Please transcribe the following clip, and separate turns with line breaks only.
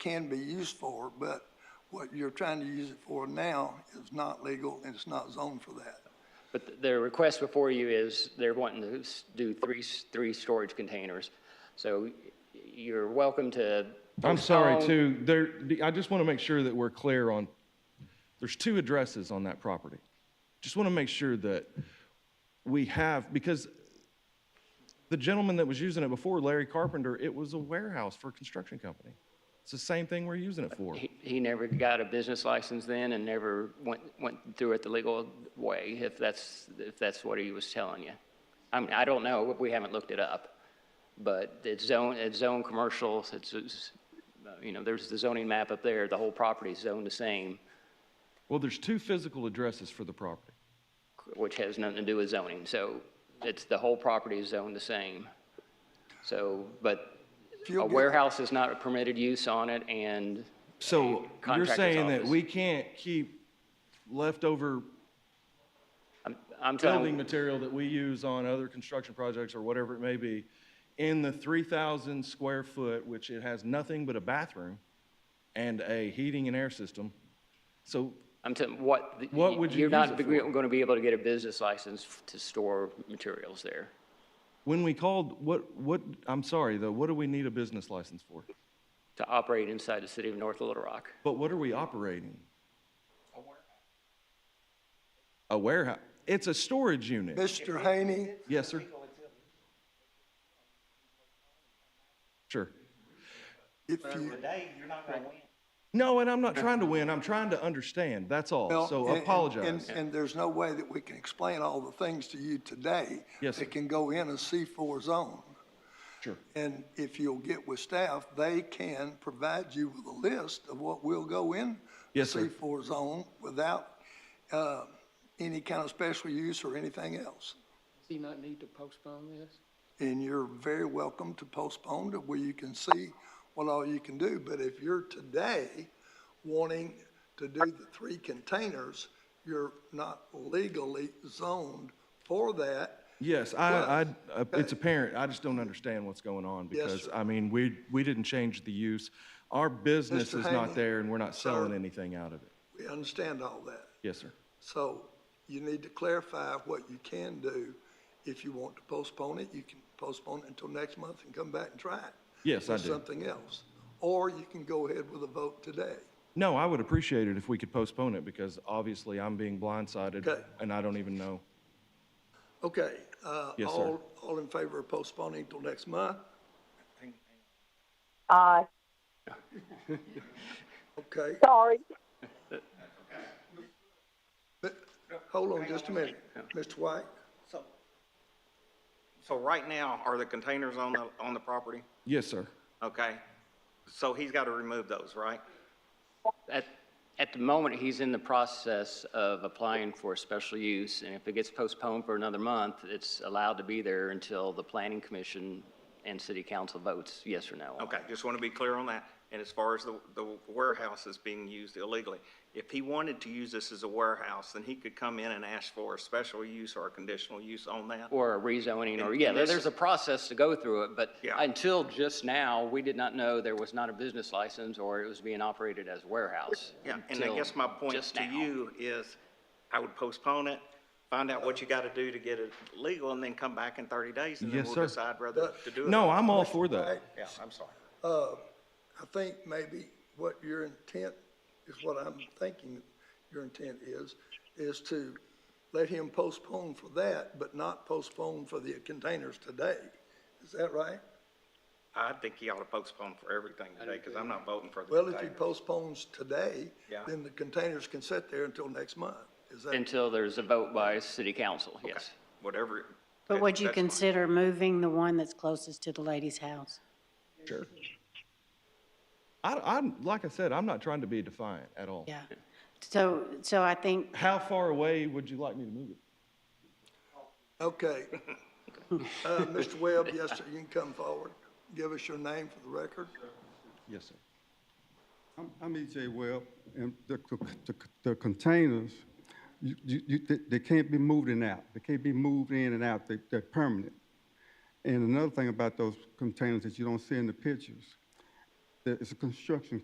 can be used for, but what you're trying to use it for now is not legal and it's not zoned for that.
But th- the request before you is they're wanting to s- do three, s- three storage containers. So y- you're welcome to.
I'm sorry
postpone-
too, there, I just want to make sure that we're clear on, there's two addresses on that property. Just want to make sure that we have, because the gentleman that was using it before, Larry Carpenter, it was a warehouse for a construction company. It's the same thing we're using it for.
He, he never got a business license then and never went, went through it the legal way, if that's, if that's what he was telling you. I mean, I don't know, we haven't looked it up, but it's zone, it's zone commercial, it's, it's, uh, you know, there's the zoning map up there, the whole property's zoned the same,
Well, there's two physical addresses for the property.
which has nothing to do with zoning, so it's, the whole property is zoned the same. So, but
If
a
you'll get-
warehouse is not a permitted use on it, and
So you're
contractor's
saying that
office.
we can't keep leftover
I'm, I'm telling.
building material that we use on other construction projects or whatever it may be in the 3,000 square foot, which it has nothing but a bathroom and a heating and air system. So
I'm telling, what? the-
What would you
You're
use
not
it for?
going to be able to get a business license f- to store materials there.
when we called, what, what, I'm sorry though, what do we need a business license for?
To operate inside the city of North Little Rock,
But what are we operating? A warehouse. It's a storage unit.
Mr. Haney,
Yes, sir. Sure.
if you,
Today, you're not gonna win.
No, and I'm not trying to win. I'm trying to understand. That's all.
Well,
So
and- and-
apologize.
and- And there's no way that we can explain all the things to you today.
Yes, sir.
That can go in a C4 zone.
Sure.
And if you'll get with staff, they can provide you with a list of what will go in. the
Yes, sir.
C4 zone without uh, any kind of special use or anything else.
Does he not need to postpone this?
And you're very welcome to postpone to where you can see what all you can do. But if you're today wanting to do the three containers, you're not legally zoned for that.
Yes, I, I, uh, it's apparent. I just don't understand what's going on
Yes,
because,
sir.
I mean, we, we didn't change the use. Our business
Mr.
is
Haney,
not there and we're not selling
sir.
anything out of it.
We understand all that.
Yes, sir.
So you need to clarify what you can do. If you want to postpone it, you can postpone it until next month and come back and try it.
Yes, I
with
do.
Something else. Or you can go ahead with a vote today.
No, I would appreciate it if we could postpone it because obviously I'm being blindsided
Okay.
and I don't even know.
Okay. uh,
Yes, sir.
all- All in favor of postponing till next month?
Aye.
Okay.
Sorry.
But, hold on just a minute, Mr. White.
So, so right now, are the containers on the, on the property?
Yes, sir.
Okay, so he's gotta remove those, right?
At, at the moment, he's in the process of applying for a special use, and if it gets postponed for another month, it's allowed to be there until the planning commission and city council votes yes or no.
Okay, just wanna be clear on that. And as far as the, the warehouse is being used illegally, if he wanted to use this as a warehouse, then he could come in and ask for a special use or a conditional use on that.
Or a rezoning, or, yeah,
and this-
there's a process to go through it, but
Yeah.
until just now, we did not know there was not a business license or it was being operated as a warehouse.
Yeah, and I
until
guess my point
just
to
now.
you is, I would postpone it, find out what you gotta do to get it legal, and then come back in thirty days, and then
Yes,
we'll
sir.
decide whether to do it.
No, I'm all for that.
Yeah, I'm sorry.
I think maybe what your intent is what I'm thinking your intent is, is to let him postpone for that, but not postpone for the containers today. Is that right?
I think he ought to postpone for everything today, because I'm not voting for the
Well, if he
container.
postpones today,
Yeah.
then the containers can sit there until next month. Is that,
Until there's a vote by city council, yes.
Whatever.
But would you
that's fine.
consider moving the one that's closest to the lady's house?
Sure. I, I'm, like I said, I'm not trying to be defiant at all.
Yeah. So, so I think
How far away would you like me to move it?
okay. Uh, Mr. Webb, yes, sir, you can come forward. Give us your name for the record.
Yes, sir.
I'm- I'm EJ Webb, and the, c- the, c- the containers, you, you, you- they, they can't be moved in and out. They can't be moved in and out. They, they're permanent. And another thing about those containers that you don't see in the pictures, that it's a construction